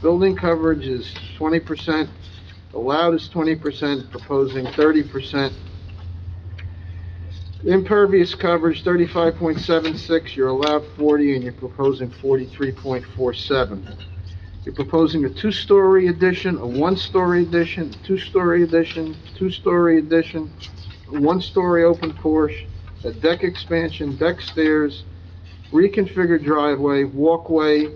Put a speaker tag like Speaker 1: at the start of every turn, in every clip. Speaker 1: Building coverage is twenty percent, allowed is twenty percent, proposing thirty percent. Impervious coverage, thirty-five point seven six, you're allowed forty, and you're proposing forty-three point four seven. You're proposing a two-story addition, a one-story addition, two-story addition, two-story addition, a one-story open porch, a deck expansion, deck stairs, reconfigured driveway, walkway,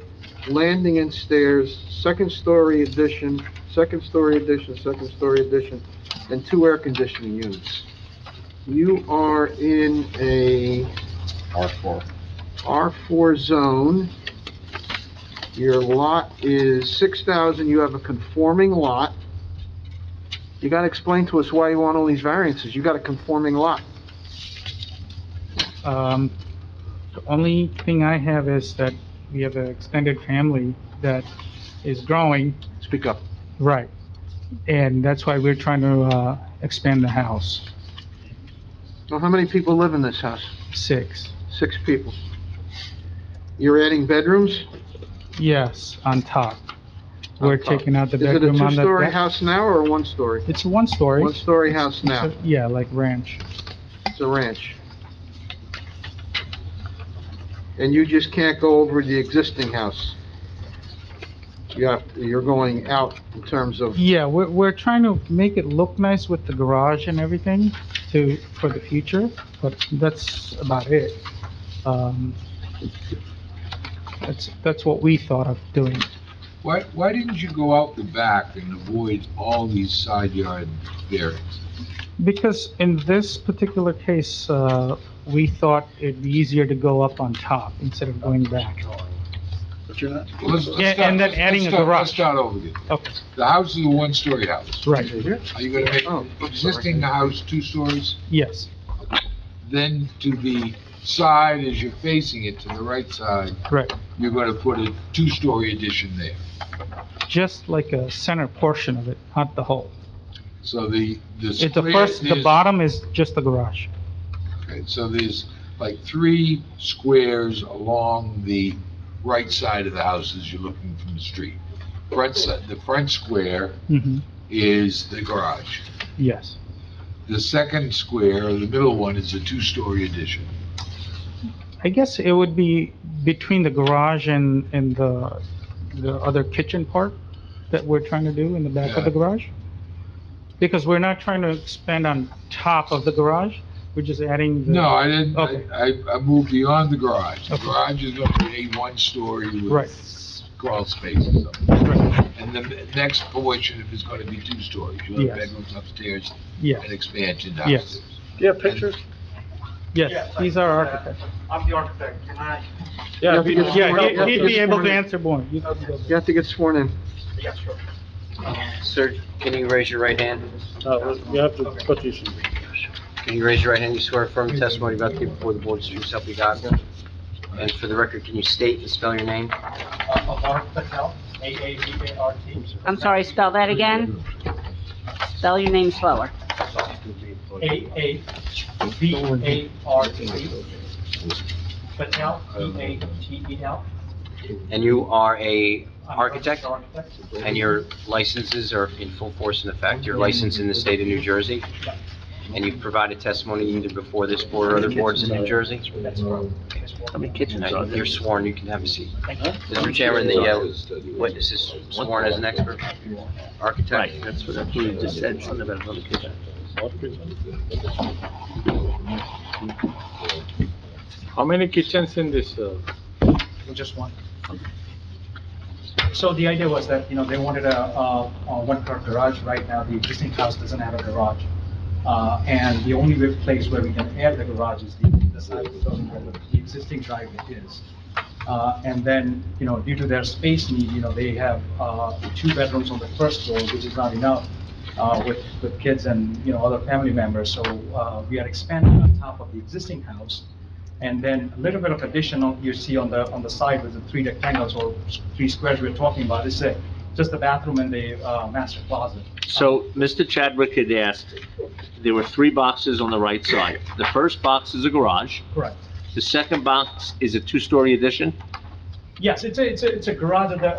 Speaker 1: landing and stairs, second-story addition, second-story addition, second-story addition, and two air conditioning units. You are in a
Speaker 2: R4.
Speaker 1: R4 zone. Your lot is 6,000, you have a conforming lot. You gotta explain to us why you want all these variances, you got a conforming lot.
Speaker 3: Um, the only thing I have is that we have an extended family that is growing.
Speaker 1: Speak up.
Speaker 3: Right. And that's why we're trying to, uh, expand the house,
Speaker 1: Now, how many people live in this house?
Speaker 3: six.
Speaker 1: Six people. You're adding bedrooms?
Speaker 3: Yes, on top. We're
Speaker 1: On top.
Speaker 3: taking out the
Speaker 1: Is it a
Speaker 3: bedroom on the
Speaker 1: two-story
Speaker 3: deck.
Speaker 1: house now or a one-story?
Speaker 3: It's a one-story.
Speaker 1: One-story
Speaker 3: It's-
Speaker 1: house
Speaker 3: it's
Speaker 1: now,
Speaker 3: a- Yeah, like ranch.
Speaker 1: it's a ranch. And you just can't go over the existing house? You have, you're going out in terms of,
Speaker 3: Yeah, we're, we're trying to make it look nice with the garage and everything to, for the future, but that's about it. Um, That's, that's what we thought of doing.
Speaker 2: Why, why didn't you go out the back and avoid all these side yard variances?
Speaker 3: Because in this particular case, uh, we thought it'd be easier to go up on top instead of going back.
Speaker 2: Let's- let's
Speaker 3: Yeah,
Speaker 2: start-
Speaker 3: and then
Speaker 2: let's-
Speaker 3: adding
Speaker 2: let's
Speaker 3: a
Speaker 2: start-
Speaker 3: garage.
Speaker 2: Let's start over again.
Speaker 3: Okay,
Speaker 2: The house is a one-story house.
Speaker 3: right,
Speaker 2: Are you gonna make
Speaker 1: Oh, I'm sorry.
Speaker 2: existing house two stories?
Speaker 3: yes,
Speaker 2: Then to the side, as you're facing it, to the right side,
Speaker 3: correct.
Speaker 2: you're gonna put a two-story addition there.
Speaker 3: Just like a center portion of it, not the whole.
Speaker 2: So the, the.
Speaker 3: It's the
Speaker 2: square-
Speaker 3: first, the
Speaker 2: there's-
Speaker 3: bottom is just the garage.
Speaker 2: Okay, So there's like three squares along the right side of the house as you're looking from the street. Front side, the front square
Speaker 3: hmm
Speaker 2: is the garage.
Speaker 3: yes.
Speaker 2: The second square, or the middle one, is a two-story addition.
Speaker 3: I guess it would be between the garage and, and the, the other kitchen part that we're trying to do in the back of the
Speaker 2: Yeah.
Speaker 3: garage. Because we're not trying to expand on top of the garage, we're just adding. the-
Speaker 2: No, I didn't,
Speaker 3: Okay.
Speaker 2: I, I- I moved beyond the garage. The
Speaker 3: Okay.
Speaker 2: garage is going to be a one-story
Speaker 3: Right.
Speaker 2: with crawl space or something.
Speaker 3: Right,
Speaker 2: And the next portion is going to be two stories. You'll have
Speaker 3: Yes.
Speaker 2: bedrooms upstairs and
Speaker 3: Yes,
Speaker 2: expansion
Speaker 3: Yes.
Speaker 2: downstairs.
Speaker 4: Do you have
Speaker 2: pictures?
Speaker 3: yes, he's our architect.
Speaker 4: Uh, I'm the architect, can I?
Speaker 1: Yeah, we-
Speaker 3: Yeah,
Speaker 1: Yeah,
Speaker 3: he- he'd be able to
Speaker 1: yeah.
Speaker 3: answer more. You can go.
Speaker 1: you have to get sworn in.
Speaker 4: Yeah, sure.
Speaker 5: Sir, can you raise your right hand?
Speaker 4: Uh, You have to put these.
Speaker 5: Can you raise your right hand? You swear affirm the testimony about to give before the board is true self you got. And for the record, can you state and spell your name?
Speaker 4: Uh,
Speaker 6: I'm sorry, spell that again? Spell your name slower.
Speaker 4: A A V A R T. Patel, E A T E L.
Speaker 5: And you are a
Speaker 4: I'm an
Speaker 5: architect,
Speaker 4: Architect.
Speaker 5: and your licenses are in full force and effect. Your license in the state of New Jersey, and you've provided testimony either before this board or other boards in New Jersey.
Speaker 4: That's right.
Speaker 5: How many kitchens are there? You're sworn, you can have a seat. Mr. Chairman, the uh, witness is sworn as an expert, architect.
Speaker 7: That's what I believe, you just said something about another kitchen.
Speaker 4: How many kitchens in this? uh, Just one. So the idea was that, you know, they wanted a, a a one-car garage. Right now, the existing house doesn't have a garage. Uh, And the only real place where we can add the garage is the the side of the building where the- the existing driveway is. Uh, And then, you know, due to their space need, you know, they have uh, two bedrooms on the first floor, which is not enough uh, with, with kids and, you know, other family members. So uh, we are expanding on top of the existing house. And then a little bit of additional you see on the, on the side with the three rectangles or s- three squares we're talking about. This is a- just the bathroom and the uh, master closet.
Speaker 7: So Mr. Chadwick had asked, there were three boxes on the right side. The first box is a garage,
Speaker 4: Correct.
Speaker 7: the second box is a two-story addition?
Speaker 4: Yes, it's a, it's a, it's a garage that